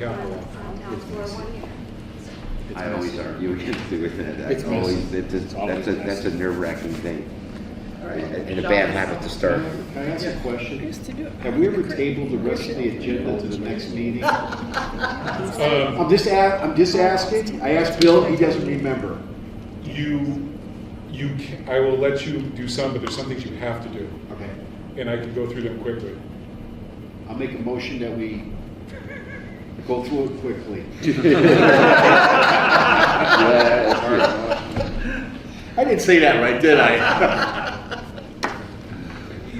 capital. It's I always messy. argue against doing that. It's I always, messy. it's, it's, It's always that's a, that's a messy. nerve wracking thing. right. And a bad habit to start. Can I ask a question? to do it. Have we ever tabled the rest of the agenda to the next meeting? Um, I'm just, a- I'm just asking. I asked Bill, he doesn't remember. you, you, ca- I will let you do some, but there's some things you have to do, Okay. and I can go through them quickly. I'll make a motion that we go through it quickly. I didn't say that right, did I?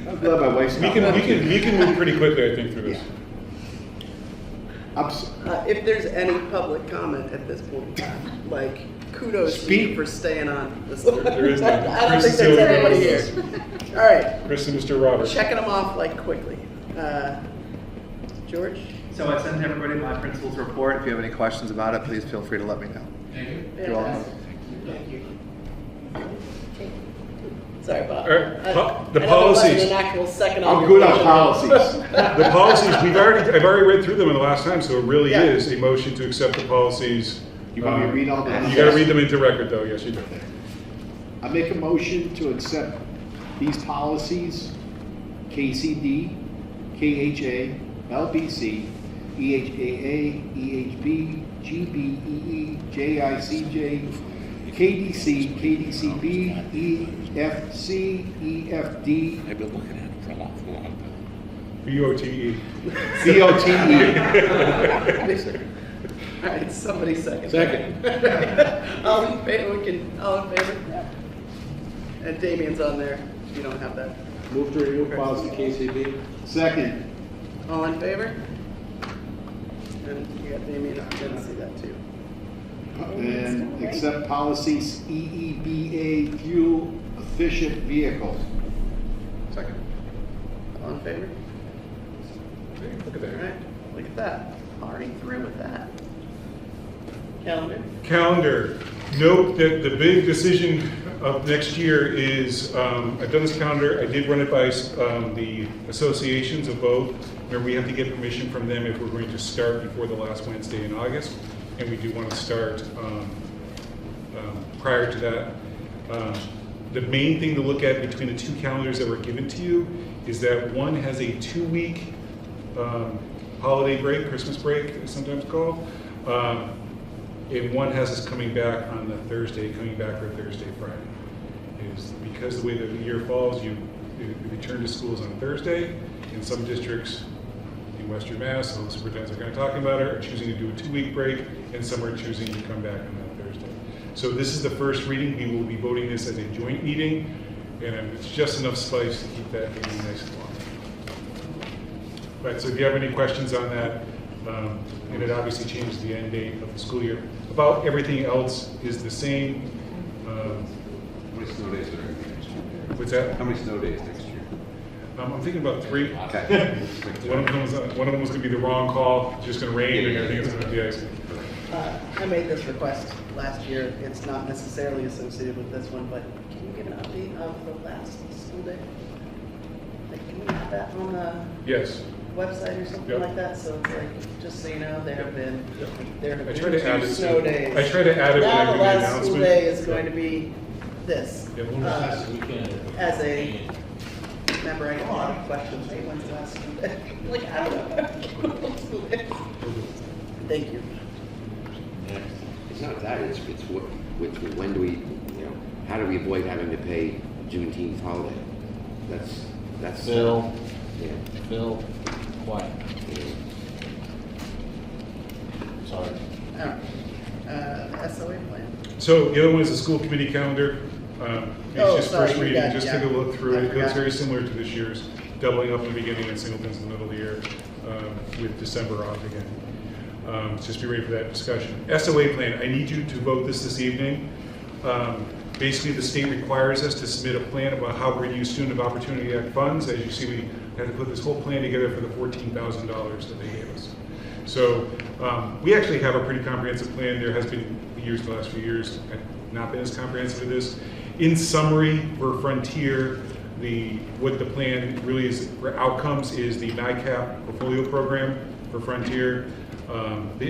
I'm glad my wife's We not can, we watching. can, we can move pretty quickly, I think, through this. I'm s- Uh, if there's any public comment at this point in time, like kudos to Speak. you for staying on this. there is none. I don't Chris think is there's the anybody only here. All right, Chris and Mr. Roberts. checking them off like quickly. Uh, George? So I sent everybody my principal's report. If you have any questions about it, please feel free to let me know. You're welcome. Sorry, Bob. All Er, right, I- po- the I know there wasn't policies. An actual second. on I'm your good on motion. policies. The policies, we've already, I've already read through them in the last time, so it really Yeah. is a motion to accept the policies. Um, You want me to read all the- You gotta read them into record, though, yes, you do. I make a motion to accept these policies, KCD, KHA, LBC, E EHAA, EHB, E GBEE, JICJ, KDC, KDCB, EFC, EFD, I've been looking at it for a lot, a long time. B O T E. BOTE. All right, somebody second. Second. All in favor, we can, all in favor? And Damien's on there, you don't have that. Move to remove policy KCB. Second. All in favor? And you got Damien, I didn't see that too. And accept policies E EEBA, fuel efficient vehicle. Second. All in favor? Look at All that. right, look at that, already through with that. Calendar, calendar. Note that the big decision of next year is, um, I've done this calendar, I did run it by um, the associations of both. Remember, we have to get permission from them if we're going to start before the last Wednesday in August, and we do want to start um, um, prior to that. Um, The main thing to look at between the two calendars that were given to you is that one has a two-week um, holiday break, Christmas break, it's sometimes called. Um, And one has us coming back on the Thursday, coming back for Thursday, Friday. Is because the way the year falls, you, you return to schools on Thursday. In some districts in Western Mass, so the superintendents are kind of talking about it, are choosing to do a two-week break, and some are choosing to come back on that Thursday. So this is the first reading. We will be voting this as a joint meeting, and it's just enough spice to keep that meeting nice and long. Right, so if you have any questions on that, um, and it obviously changes the end date of the school year. About everything else is the same. Um, How many snow days are there next year? What's that? How many snow days next year? Um, I'm thinking about three. Okay. One of them was, one of them was gonna be the wrong call, it's just gonna rain and everything is gonna be ice. uh, I made this request last year, it's not necessarily associated with this one, but can you give an update of the last school day? Like, can we have that on the? Yes. website or something Yep. like that, so it's like, just so you know, there have been, there have I tried to been add it to- two snow days. I tried to add it when I Now did the the last school announcement. day is going to be this. Yeah, we'll Uh, just- As a member, I get a lot of questions, hey, when's the last school day? Like, I don't know. School day. Thank you. It's not that, it's, it's what, which, when do we, you know, how do we avoid having to pay Juneteenth holiday? That's, that's. Phil, Yeah. Phil, quiet. Sorry. All right. Uh, SOA plan. So the other one is the school committee calendar. Um, Oh, It's just sorry, first you reading, got- just yeah. take a look through I it. It goes forgot. very similar to this year's, doubling up in the beginning and singletons in the middle of the year um, with December off again. Um, Just be ready for that discussion. SOA plan, I need you to vote this this evening. Um, Basically, the state requires us to submit a plan about how we're going to use Student of Opportunity Act funds. As you see, we had to put this whole plan together for the $14,000 that they gave us. So um, we actually have a pretty comprehensive plan. There has been years, the last few years, have not been as comprehensive as this. In summary, for Frontier, the, what the plan really is, for outcomes is the NICAP portfolio program for Frontier, Um, The